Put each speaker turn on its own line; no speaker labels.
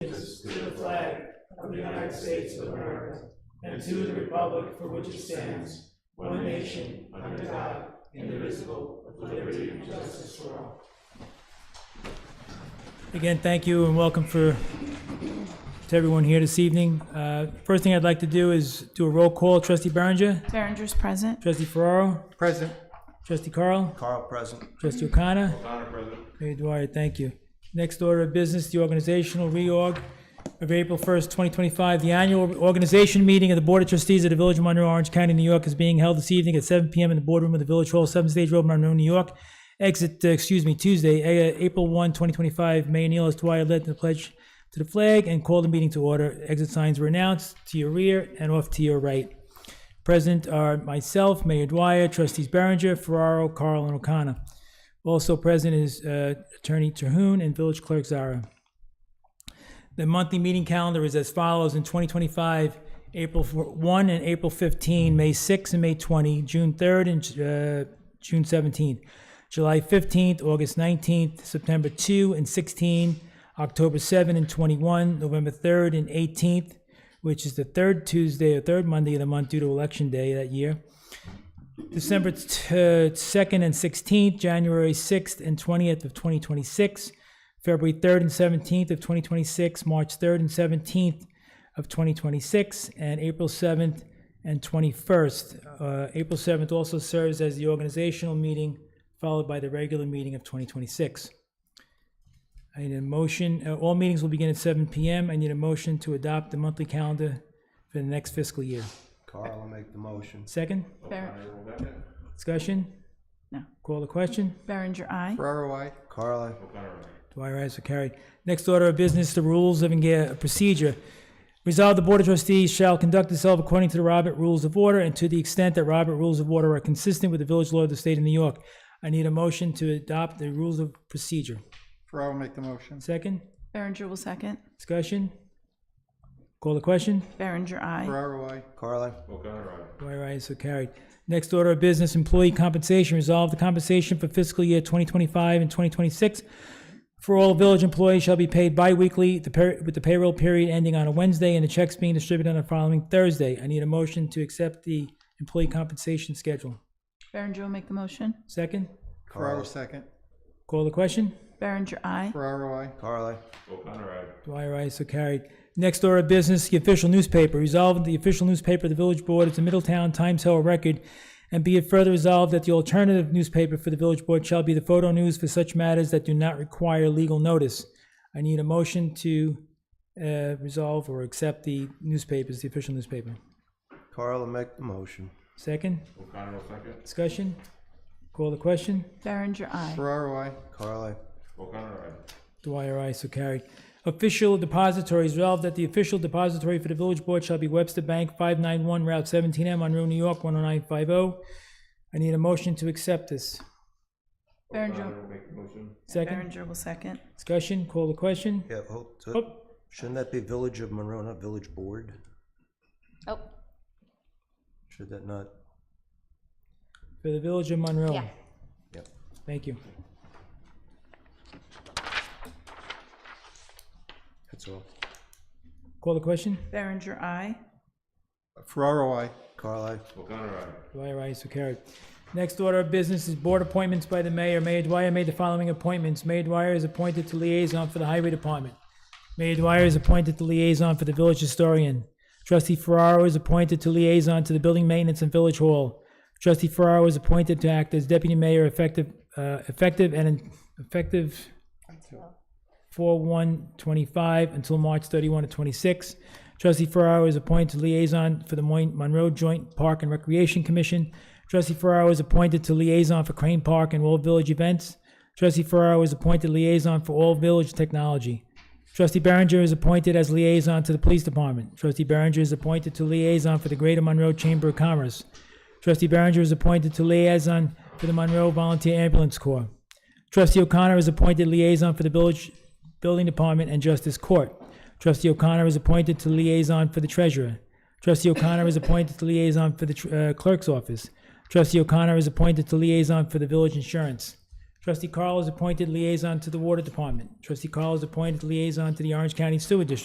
of the United States of America and to the republic for which it stands, one nation, under God, indivisible, with liberty and justice for all.
Again, thank you and welcome for, to everyone here this evening. Uh, First thing I'd like to do is do a roll call. Trustee Berenger,
Berenger's present.
trustee Ferraro,
Present.
trustee Carl,
Carl, present.
trustee O'Connor. O'Connor, President. Mayor Dwyer, thank you. Next order of business, the organizational reorg of April 1st, 2025. The annual organization meeting of the Board of Trustees of the Village of Monroe, Orange County, New York is being held this evening at 7 PM in the boardroom of the Village Hall, 7 Stage Road, Monroe, New York. Exit, uh, excuse me, Tuesday, A- April 1, 2025. Mayor Neil S. Dwyer led the pledge to the flag and called the meeting to order. Exit signs were announced to your rear and off to your right. Present are myself, Mayor Dwyer, trustees Berenger, Ferraro, Carl, and O'Connor. Also present is uh, Attorney Terhune and Village Clerk Zara. The monthly meeting calendar is as follows in 2025, April 1 and April 15, May 6 and May 20, June 3rd and uh, June 17th, July 15th, August 19th, September 2 and 16, October 7 and 21, November 3rd and 18th, which is the third Tuesday or third Monday of the month due to Election Day that year. December uh, second and sixteenth, January sixth and twentieth of twenty twenty-six, February third and seventeenth of twenty twenty-six, March third and seventeenth of twenty twenty-six, and April seventh and twenty-first. Uh, April seventh also serves as the organizational meeting, followed by the regular meeting of twenty twenty-six. I need a motion, uh, all meetings will begin at seven PM. I need a motion to adopt the monthly calendar for the next fiscal year.
Carl will make the motion.
Second,
Ber-
discussion?
No.
Call the question?
Berenger, aye.
Ferraro, I. Carl, aye.
Dwyer, ayes are carried. Next order of business, the rules of enga- procedure. Resolved, the Board of Trustees shall conduct itself according to the Robert Rules of Order and to the extent that Robert Rules of Order are consistent with the village law of the state of New York. I need a motion to adopt the rules of procedure.
Ferraro make the motion.
Second,
Berenger will second.
discussion? Call the question?
Berenger, aye.
Ferraro, I.
Carl, aye.
Dwyer, ayes are carried. Next order of business, employee compensation. Resolve the compensation for fiscal year 2025 and 2026 for all village employees shall be paid bi-weekly, the per- with the payroll period ending on a Wednesday and the checks being distributed on the following Thursday. I need a motion to accept the employee compensation schedule.
Berenger will make the motion.
Second,
Ferraro second.
call the question?
Berenger, aye.
Ferraro, I.
Carl, aye.
Dwyer, ayes so carried. Next order of business, the official newspaper. Resolved, the official newspaper of the Village Board is the Middletown Times Herald Record, and be it further resolved that the alternative newspaper for the Village Board shall be the Photo News for such matters that do not require legal notice. I need a motion to uh, resolve or accept the newspapers, the official newspaper.
Carl will make the motion.
Second? Discussion? Call the question?
Berenger, aye.
Ferraro, I.
Carl, aye.
Dwyer, aye, so carried. Official depositories, resolved that the official depository for the village board shall be Webster Bank, 591 Route 17M, Monroe, New York, 10950. I need a motion to accept this.
Berenger,
Second,
Berenger will second.
discussion, call the question?
Yeah, hold, so-
Oh,
shouldn't that be Village of Monroe, not Village Board?
Oh,
Should that not?
for the village of Monroe.
Yeah.
Yep.
Thank you.
That's all.
Call the question?
Berenger, aye.
Ferraro, I.
Carl, aye.
Dwyer, aye, so carried. Next order of business is board appointments by the mayor. Mayor Dwyer made the following appointments. Mayor Dwyer is appointed to liaison for the highway department. Mayor Dwyer is appointed to liaison for the village historian. Trustee Ferraro is appointed to liaison to the building maintenance and village hall. Trustee Ferraro is appointed to act as deputy mayor effective, uh, effective and in- effective four one twenty-five until March thirty-one to twenty-six. Trustee Ferraro is appointed liaison for the Moin- Monroe Joint Park and Recreation Commission. Trustee Ferraro is appointed to liaison for Crane Park and all village events. Trustee Ferraro is appointed liaison for all village technology. Trustee Berenger is appointed as liaison to the police department. Trustee Berenger is appointed to liaison for the Greater Monroe Chamber of Commerce. Trustee Berenger is appointed to liaison for the Monroe Volunteer Ambulance Corps. Trustee O'Connor is appointed liaison for the village building department and justice court. Trustee O'Connor is appointed to liaison for the treasurer. Trustee O'Connor is appointed to liaison for the tr- uh, clerk's office. Trustee O'Connor is appointed to liaison for the village insurance. Trustee Carl is appointed liaison to the water department. Trustee Carl is appointed liaison to the Orange County Sewer District.